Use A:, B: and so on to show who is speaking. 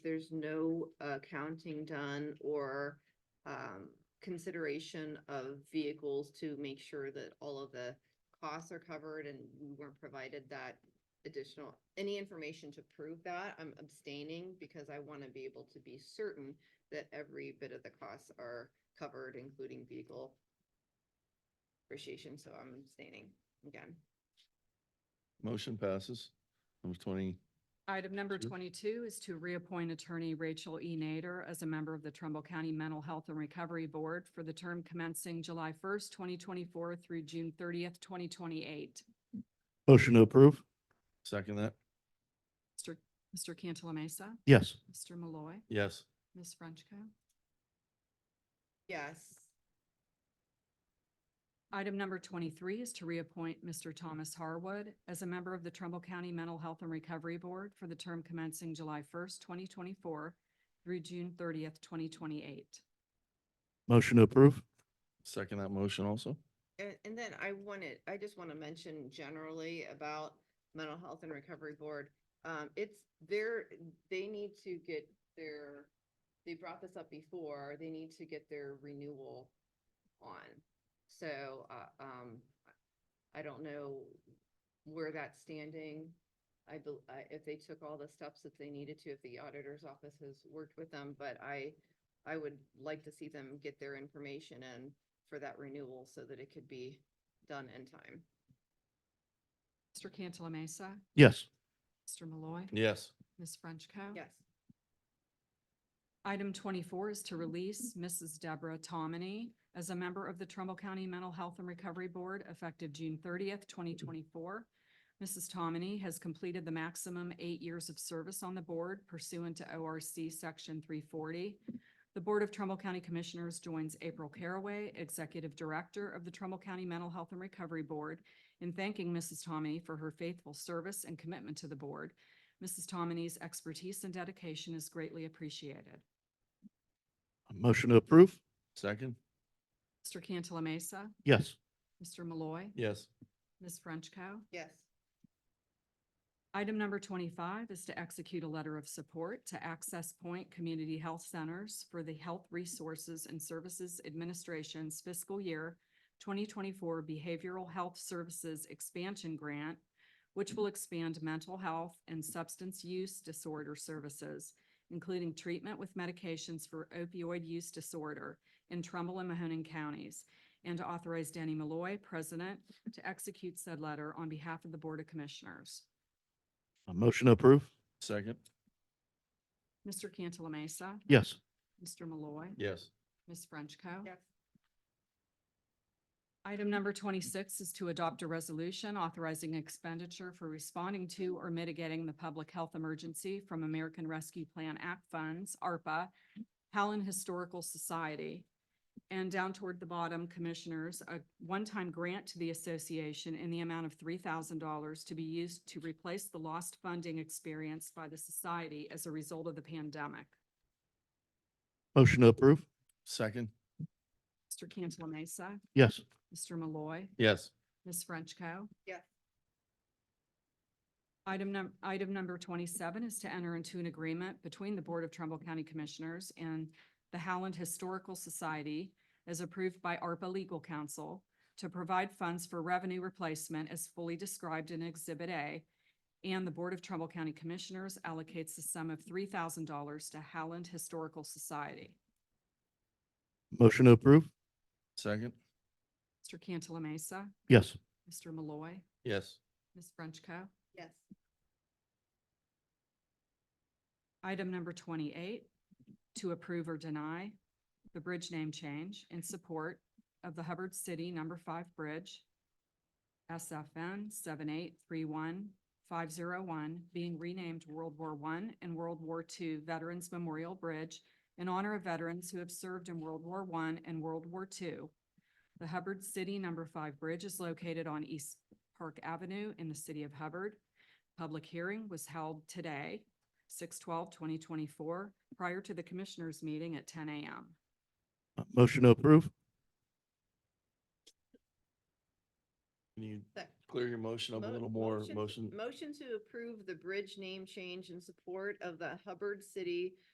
A: there's no accounting done or um, consideration of vehicles to make sure that all of the costs are covered and we weren't provided that additional, any information to prove that, I'm abstaining because I want to be able to be certain that every bit of the costs are covered, including vehicle appreciation, so I'm abstaining again.
B: Motion passes. Number twenty,
C: Item number
B: Sure.
C: twenty-two is to reappoint Attorney Rachel E. Nader as a member of the Trumbull County Mental Health and Recovery Board for the term commencing July first, twenty twenty-four through June thirtieth, twenty twenty-eight.
D: Motion to approve?
B: second that?
C: Mr. Mr. Cantala Mesa,
D: Yes.
C: Mr. Malloy,
B: Yes.
C: Ms. Frenchco.
A: Yes,
C: Item number twenty-three is to reappoint Mr. Thomas Harwood as a member of the Trumbull County Mental Health and Recovery Board for the term commencing July first, twenty twenty-four through June thirtieth, twenty twenty-eight.
D: Motion to approve?
B: Second that motion also?
A: and, and then I wanted, I just want to mention generally about mental health and recovery board. Um, it's their, they need to get their, they brought this up before, they need to get their renewal on. So, uh, um, I don't know where that's standing. I bel- I if they took all the steps that they needed to, if the auditor's office has worked with them, but I, I would like to see them get their information in for that renewal so that it could be done in time.
C: Mr. Cantala Mesa,
D: Yes.
C: Mr. Malloy,
B: Yes.
C: Ms. Frenchco.
A: Yes,
C: Item twenty-four is to release Mrs. Deborah Tomini as a member of the Trumbull County Mental Health and Recovery Board effective June thirtieth, twenty twenty-four. Mrs. Tomini has completed the maximum eight years of service on the board pursuant to ORC Section three forty. The Board of Trumbull County Commissioners joins April Caraway, Executive Director of the Trumbull County Mental Health and Recovery Board, in thanking Mrs. Tomini for her faithful service and commitment to the board. Mrs. Tomini's expertise and dedication is greatly appreciated.
D: Motion to approve?
B: Second?
C: Mr. Cantala Mesa,
D: Yes.
C: Mr. Malloy,
B: Yes.
C: Ms. Frenchco.
A: yes,
C: Item number twenty-five is to execute a letter of support to Access Point Community Health Centers for the Health Resources and Services Administration's fiscal year twenty twenty-four Behavioral Health Services Expansion Grant, which will expand mental health and substance use disorder services, including treatment with medications for opioid use disorder in Trumbull and Mahoning counties, and to authorize Danny Malloy, President, to execute said letter on behalf of the Board of Commissioners.
D: A motion to approve?
B: Second?
C: Mr. Cantala Mesa.
D: Yes.
C: Mr. Malloy.
B: Yes.
C: Ms. Frenchco.
A: yes,
C: Item number twenty-six is to adopt a resolution authorizing expenditure for responding to or mitigating the public health emergency from American Rescue Plan Act funds, ARPA, Howland Historical Society. And down toward the bottom, Commissioners, a one-time grant to the association in the amount of three thousand dollars to be used to replace the lost funding experienced by the society as a result of the pandemic.
D: Motion to approve?
B: Second?
C: Mr. Cantala Mesa,
D: Yes.
C: Mr. Malloy.
B: Yes.
C: Ms. Frenchco.
A: Yes.
C: Item num, item number twenty-seven is to enter into an agreement between the Board of Trumbull County Commissioners and the Howland Historical Society as approved by ARPA Legal Counsel to provide funds for revenue replacement as fully described in Exhibit A. And the Board of Trumbull County Commissioners allocates the sum of three thousand dollars to Howland Historical Society.
D: Motion to approve?
B: Second?
C: Mr. Cantala Mesa,
D: Yes.
C: Mr. Malloy,
B: Yes.
C: Ms. Frenchco.
A: yes,
C: Item number twenty-eight, to approve or deny the bridge name change in support of the Hubbard City Number Five Bridge, SFN seven eight three one five zero one, being renamed World War One and World War II Veterans Memorial Bridge in honor of veterans who have served in World War One and World War II. The Hubbard City Number Five Bridge is located on East Park Avenue in the city of Hubbard. Public hearing was held today, 2024, prior to the commissioners' meeting at ten AM.
D: A Motion to approve?
B: Can you
A: Sec-
B: clear your motion up a
A: Mo-
B: little more?
A: motion-
B: Motion?
A: Motion to approve the bridge name change in support of the Hubbard City